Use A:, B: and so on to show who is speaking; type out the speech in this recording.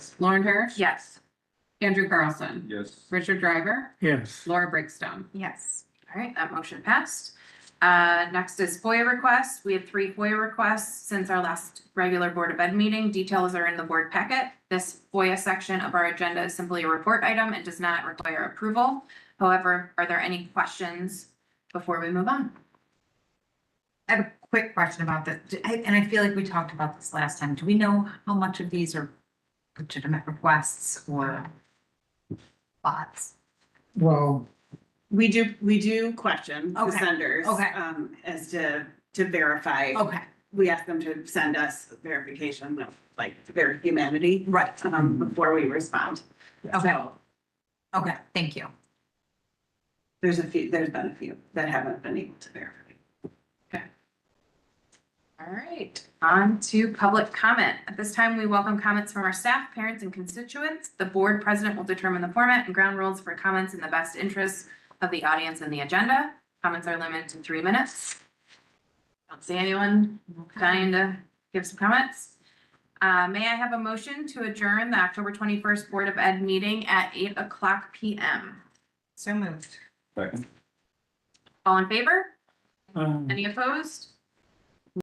A: Lauren Hirsch.
B: Yes.
A: Andrew Carlson.
C: Yes.
A: Richard Driver.
D: yes,
A: Laura Brinkstone.
B: Yes. All right, that motion passed. Uh, next is FOIA requests. We had three FOIA requests since our last regular Board of Ed meeting. Details are in the board packet. This FOIA section of our agenda is simply a report item and does not require approval. However, are there any questions before we move on?
E: I have a quick question about this, Do- I- and I feel like we talked about this last time. Do we know how much of these are legitimate requests or bots?
D: well,
F: We do, we do question the
E: Okay,
F: senders.
E: okay.
F: Um, as to, to verify.
E: Okay,
F: We ask them to send us verification of like their humanity,
E: right,
F: um, before we respond.
E: okay,
F: So
E: okay, thank you.
F: There's a few, there's been a few that haven't been able to verify.
B: All right, on to public comment. At this time, we welcome comments from our staff, parents, and constituents. The board president will determine the format and ground rules for comments in the best interest of the audience and the agenda. Comments are limited to three minutes. Don't see anyone dying to give some comments. Uh, may I have a motion to adjourn the October twenty-first Board of Ed meeting at eight o'clock PM?
E: So moved.
C: Second.
B: All in favor?
D: um,
B: Any opposed?